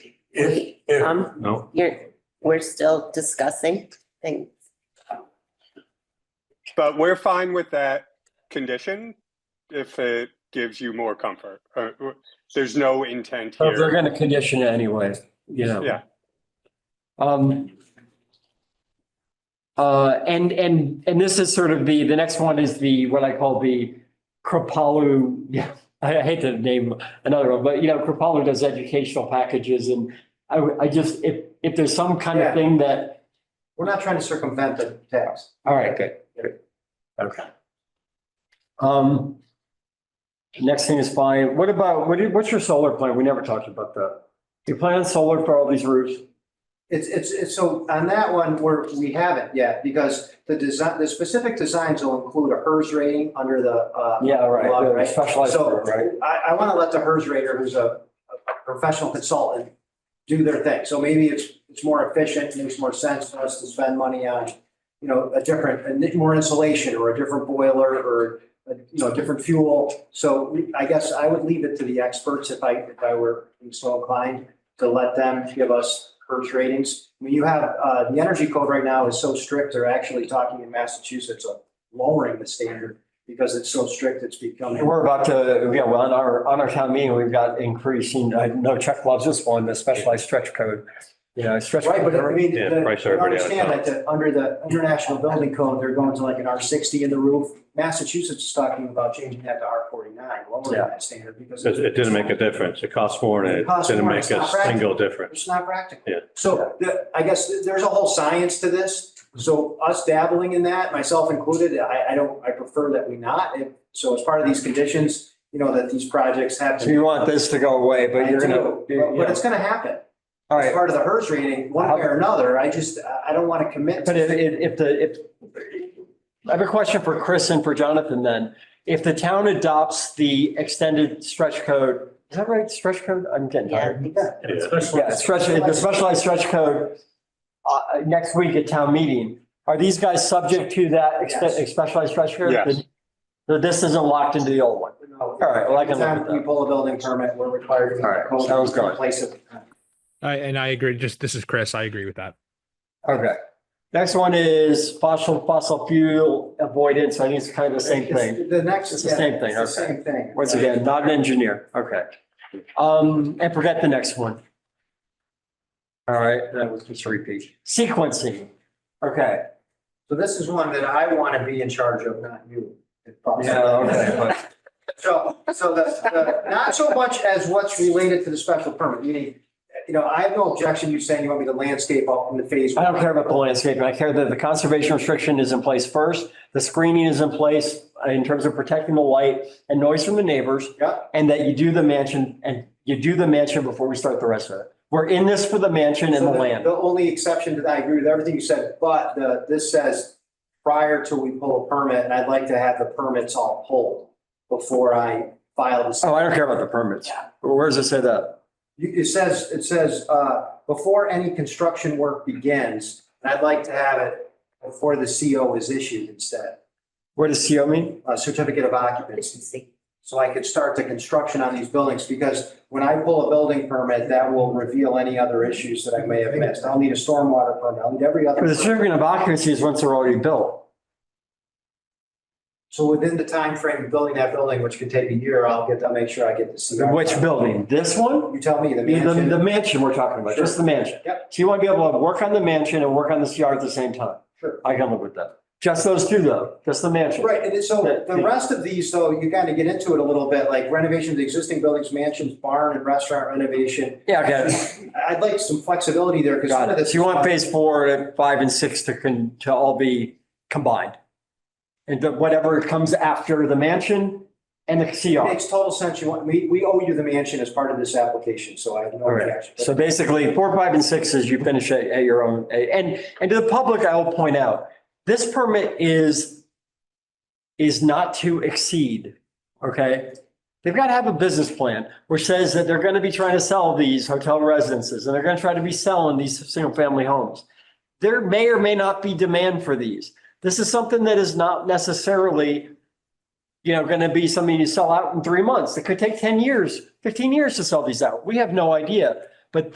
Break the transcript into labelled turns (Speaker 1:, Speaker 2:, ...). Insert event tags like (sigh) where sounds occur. Speaker 1: If,
Speaker 2: Wait,
Speaker 1: if,
Speaker 2: um,
Speaker 3: No,
Speaker 2: you're, we're still discussing things.
Speaker 4: But we're fine with that condition if it gives you more comfort. Uh, w- There's no intent
Speaker 3: So they're
Speaker 4: here.
Speaker 3: gonna condition it anyway, you know.
Speaker 4: Yeah.
Speaker 3: Um. Uh, and, and, and this is sort of the, the next one is the, what I call the Kripalu, (laughs) yeah, I I hate to name another one, but you know, Kripalu does educational packages and I, would- I just, if, if there's some kind of
Speaker 5: Yeah.
Speaker 3: thing that,
Speaker 5: We're not trying to circumvent the text.
Speaker 3: all right, good, good. Okay. Um. Next thing is fine. What about, what, do- what's your solar plan? We never talked about that. Do you plan on solar for all these roofs?
Speaker 5: It's, it's, it's, so on that one, we're, we haven't yet, because the design, the specific designs will include a HERS rating under the, uh,
Speaker 3: Yeah,
Speaker 5: Law,
Speaker 3: right,
Speaker 5: right?
Speaker 3: the specialized,
Speaker 5: So-
Speaker 3: group, right?
Speaker 5: I, I want to let the HERS rater, who's a a professional consultant, do their thing. So maybe it's, it's more efficient, makes more sense for us to spend money on, you know, a different, a more insulation or a different boiler or, uh, you know, different fuel. So we- I guess I would leave it to the experts if I, if I were so inclined to let them give us HERS ratings. I mean, you have, uh, the energy code right now is so strict, they're actually talking in Massachusetts of lowering the standard because it's so strict, it's becoming.
Speaker 3: We're about to, yeah, well, on our, on our town meeting, we've got increasing, uh, I know Chuck loves this one, the specialized stretch code. You know, stretch.
Speaker 5: Right, but I
Speaker 3: code.
Speaker 5: mean,
Speaker 6: Yeah,
Speaker 5: the-
Speaker 6: price
Speaker 5: you
Speaker 6: everybody out of
Speaker 5: understand
Speaker 6: town.
Speaker 5: that the- under the international building code, they're going to like an R sixty in the roof. Massachusetts is talking about changing that to R forty-nine, lowering
Speaker 3: Yeah.
Speaker 5: that standard because.
Speaker 6: It, it didn't make a difference. It cost more and
Speaker 5: It
Speaker 6: it
Speaker 5: costs
Speaker 6: didn't
Speaker 5: more.
Speaker 6: make
Speaker 5: It's
Speaker 6: a
Speaker 5: not practical.
Speaker 6: single difference.
Speaker 5: It's not practical.
Speaker 6: Yeah.
Speaker 5: So the, I guess th- there's a whole science to this. So us dabbling in that, myself included, I, I don't, I prefer that we not. If- So as part of these conditions, you know, that these projects have
Speaker 3: So
Speaker 5: to.
Speaker 3: you want this to go away, but you're
Speaker 5: But but
Speaker 3: gonna.
Speaker 5: it's gonna happen.
Speaker 3: All
Speaker 5: It's
Speaker 3: right,
Speaker 5: part of the HERS rating, one way or another. I just, I- I don't want to commit.
Speaker 3: but if, if if the, if, I have a question for Chris and for Jonathan then. If the town adopts the extended stretch code, is that right? Stretch code? I'm getting tired.
Speaker 6: Yeah.
Speaker 3: Yeah, stretch, the specialized stretch code, uh, next week at town meeting. Are these guys subject to that expe- specialized stretch code?
Speaker 4: Yes.
Speaker 3: So this isn't locked into the old one?
Speaker 5: All
Speaker 3: right, well, I can look at
Speaker 5: Anytime we
Speaker 3: that.
Speaker 5: pull a building permit, we're required to.
Speaker 3: All right, sounds good.
Speaker 5: Place it.
Speaker 7: I, and I agree. Just this is Chris. I agree with that.
Speaker 3: Okay. Next one is fossil, fossil fuel avoidance. I think it's kind of the same thing.
Speaker 5: It's The next.
Speaker 3: It's the
Speaker 5: yeah,
Speaker 3: same thing,
Speaker 5: it's the
Speaker 3: okay.
Speaker 5: Same thing.
Speaker 3: Once again, not an engineer. Okay. Um, and forget the next one. All right, that was just a repeat. Sequencing. Okay.
Speaker 5: So this is one that I want to be in charge of, not you. if possible.
Speaker 3: Yeah, okay, but
Speaker 5: So, so the, the, not so much as what's related to the special permit, meaning, you know, I have no objection to you saying you want me to landscape up in the phase.
Speaker 3: I don't care about the landscaping. I care that the conservation restriction is in place first. The screening is in place in terms of protecting the light and noise from the neighbors.
Speaker 5: Yeah.
Speaker 3: And that you do the mansion and you do the mansion before we start the rest of it. We're in this for the mansion and the
Speaker 5: So
Speaker 3: land.
Speaker 5: The only exception to that, I agree with everything you said, but the, this says prior to we pull a permit, and I'd like to have the permits all pulled before I file this.
Speaker 3: Oh, I don't care about the permits.
Speaker 5: Yeah.
Speaker 3: Where does it say that?
Speaker 5: You- It says, it says, uh, before any construction work begins, and I'd like to have it before the CO is issued instead,
Speaker 3: Where does CO mean?
Speaker 5: a certificate of occupancy.
Speaker 2: Efficiency.
Speaker 5: So I could start the construction on these buildings, because when I pull a building permit, that will reveal any other issues that I may have missed. I'll need a stormwater permit, I'll need every other.
Speaker 3: But The
Speaker 5: permit.
Speaker 3: certificate of occupancy is once they're already built.
Speaker 5: So within the time frame of building that building, which could take a year, I'll get, I'll make sure I get the CR.
Speaker 3: Which building? This one?
Speaker 5: You tell me, the
Speaker 3: The, the- the
Speaker 5: mansion?
Speaker 3: mansion we're talking about, just the mansion.
Speaker 5: Yep.
Speaker 3: So you want to be able to work on the mansion and work on the CR at the same time.
Speaker 5: Sure.
Speaker 3: I can live with that. Just those two though, just the mansion.
Speaker 5: Right, and so the rest of these, though, you kind of get into it a little bit, like renovation of the existing buildings, mansions, barn and restaurant renovation.
Speaker 3: Yeah, okay.
Speaker 5: I'd like some flexibility there because.
Speaker 3: Got it. So you want phase four, and five and six to con, to all be combined? And the- whatever comes after the mansion and the CR.
Speaker 5: Makes total sense. You want, we, we owe you the mansion as part of this application, so I have no
Speaker 3: All right.
Speaker 5: objection.
Speaker 3: So basically, four, five, and six is you finish at, at your own, and, and to the public, I will point out, this permit is, is not to exceed, okay? They've got to have a business plan, which says that they're going to be trying to sell these hotel residences, and they're going to try to be selling these single-family homes. There may or may not be demand for these. This is something that is not necessarily, you know, going to be something you sell out in three months. It could take 10 years, 15 years to sell these out. We have no idea.